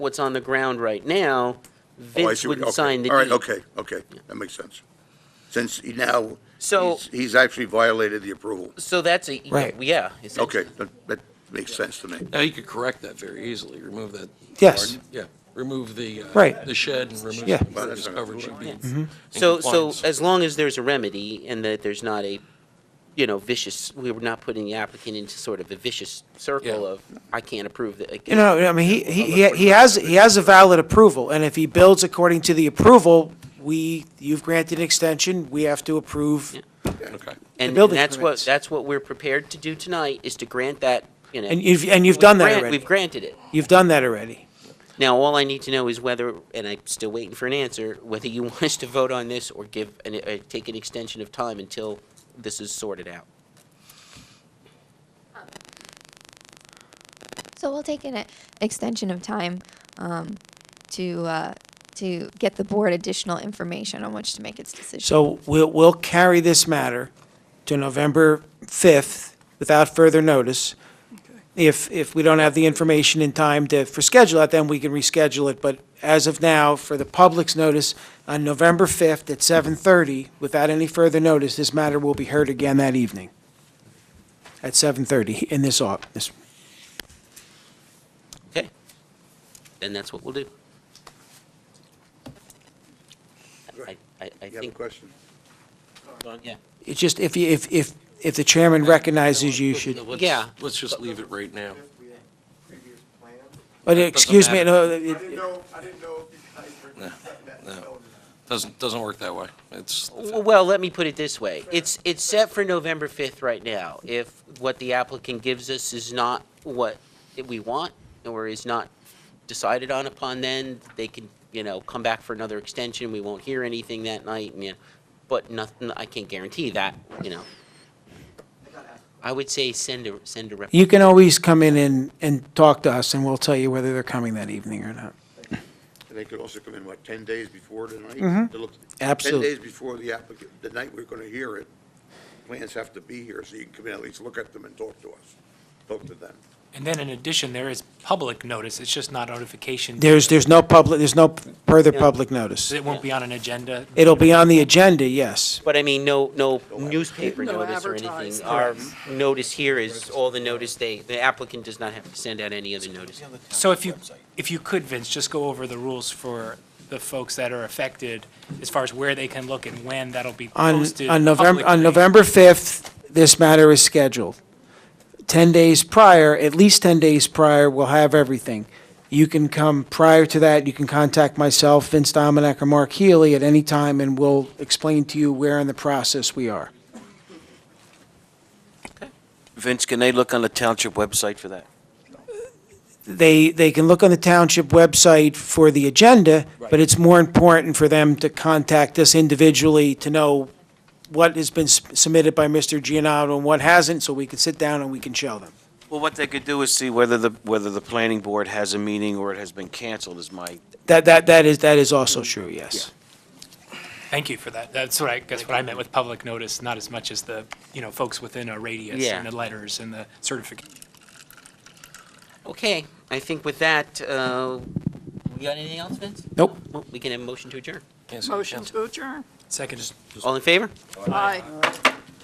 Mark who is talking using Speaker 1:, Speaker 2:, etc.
Speaker 1: what's on the ground right now,
Speaker 2: Oh, I
Speaker 1: Vince
Speaker 2: see what-
Speaker 1: wouldn't
Speaker 2: okay.
Speaker 1: sign the deed.
Speaker 2: All right, okay, okay, that makes sense. Since he now,
Speaker 1: So-
Speaker 2: he's- he's actually violated the approval.
Speaker 1: So that's a,
Speaker 3: Right.
Speaker 1: yeah. it's-
Speaker 2: Okay, that, that makes sense to me.
Speaker 4: Now, you could correct that very easily, remove that.
Speaker 3: Yes.
Speaker 4: garden- Yeah, remove the. uh,
Speaker 3: Right.
Speaker 4: The shed and remove.
Speaker 3: Yeah. Mm-hmm.
Speaker 4: the
Speaker 2: Well, that's
Speaker 4: This
Speaker 2: not-
Speaker 4: coverage should be. in
Speaker 1: So, so uh,
Speaker 4: compliance.
Speaker 1: as long as there's a remedy and that there's not a, you know, vicious, we were not putting the applicant into sort of a vicious circle
Speaker 4: Yeah.
Speaker 1: of, I can't approve that. I
Speaker 3: You
Speaker 1: can't-"
Speaker 3: know, I mean, he, he, he- he has, he has a valid approval, and if he builds according to the approval, we, you've granted an extension, we have to approve.
Speaker 4: Okay.
Speaker 1: And and
Speaker 3: building
Speaker 1: that's what,
Speaker 3: permits.
Speaker 1: that's what we're prepared to do tonight, is to grant that, you know.
Speaker 3: And you've, and you've
Speaker 1: we've
Speaker 3: done that
Speaker 1: grant-
Speaker 3: already.
Speaker 1: We've granted it.
Speaker 3: You've done that already.
Speaker 1: Now, all I need to know is whether, and I'm still waiting for an answer, whether you want us to vote on this or give, an- uh, take an extension of time until this is sorted out.
Speaker 5: So we'll take an e- extension of time um, to, uh, to get the board additional information on which to make its decision.
Speaker 3: So we'll, we'll carry this matter to November 5th without further notice. If, if we don't have the information in time to, for schedule it, then we can reschedule it. But as of now, for the public's notice, on November 5th at 7:30, without any further notice, this matter will be heard again that evening at 7:30 in this au, this
Speaker 1: Okay? Then that's what we'll do. I, I, I
Speaker 2: You have a
Speaker 1: think,
Speaker 2: question?
Speaker 1: yeah.
Speaker 3: It's just, if, you- if, if, if the chairman recognizes you should,
Speaker 4: Let's-
Speaker 1: Yeah.
Speaker 4: Let's just leave it right now.
Speaker 3: but excuse me, no, it-
Speaker 6: know, I didn't know if you guys were.
Speaker 4: No, no. Doesn't, doesn't work that way. It's,
Speaker 1: W- Well, let me put it this way. It's, it's set for November 5th right now. If what the applicant gives us is not what we want or is not decided on upon then, they can, you know, come back for another extension. We won't hear anything that night, and, you know, but nothing, I can't guarantee that, you know. I would say send a, send a rep.
Speaker 3: you can always come in and, and talk to us, and we'll tell you whether they're coming that evening or not.
Speaker 2: And they could also come in, what, 10 days before tonight? To look- 10
Speaker 3: Absolute.
Speaker 2: days before the applicant, the night we're going to hear it, plans have to be here, so you can come in, at least look at them and talk to us, talk to them.
Speaker 7: And then in addition, there is public notice, it's just not notification.
Speaker 3: There's, there's no public, there's no further
Speaker 1: Yeah.
Speaker 3: public notice.
Speaker 7: It won't be on an agenda.
Speaker 3: It'll be on the agenda, yes.
Speaker 1: But I mean, no, no newspaper notice or anything.
Speaker 8: advertising.
Speaker 1: Our notice here is all the notice they, the applicant does not have to send out any other notice.
Speaker 7: So if you, if you could, Vince, just go over the rules for the folks that are affected as far as where they can look and when that'll be
Speaker 3: On,
Speaker 7: posted.
Speaker 3: on November, on
Speaker 7: publicly.
Speaker 3: November 5th, this matter is scheduled. 10 days prior, at least 10 days prior, we'll have everything. You can come prior to that, you can contact myself, Vince Dominic, or Mark Healy at any time, and we'll explain to you where in the process we are.
Speaker 8: Vince, can they look on the township website for that?
Speaker 3: They, they can look on the township website for the agenda, but it's more important for them to contact us individually to know what has been s- submitted by Mr. Gianotto and what hasn't, so we can sit down and we can show them.
Speaker 8: Well, what they could do is see whether the, whether the planning board has a meeting or it has been canceled is my,
Speaker 3: That, that, that is, that is also true, yes.
Speaker 7: Thank you for that. That's what I, guess what I meant with public notice, not as much as the, you know, folks within a radius
Speaker 1: Yeah.
Speaker 7: and the letters and the certification.
Speaker 1: Okay, I think with that, uh, we got anything else, Vince?
Speaker 3: Nope.
Speaker 1: Well, We can have a motion to adjourn.
Speaker 4: can't say
Speaker 8: Motion
Speaker 4: can't-
Speaker 8: to adjourn.
Speaker 7: Second.
Speaker 1: All in favor?
Speaker 8: Aye.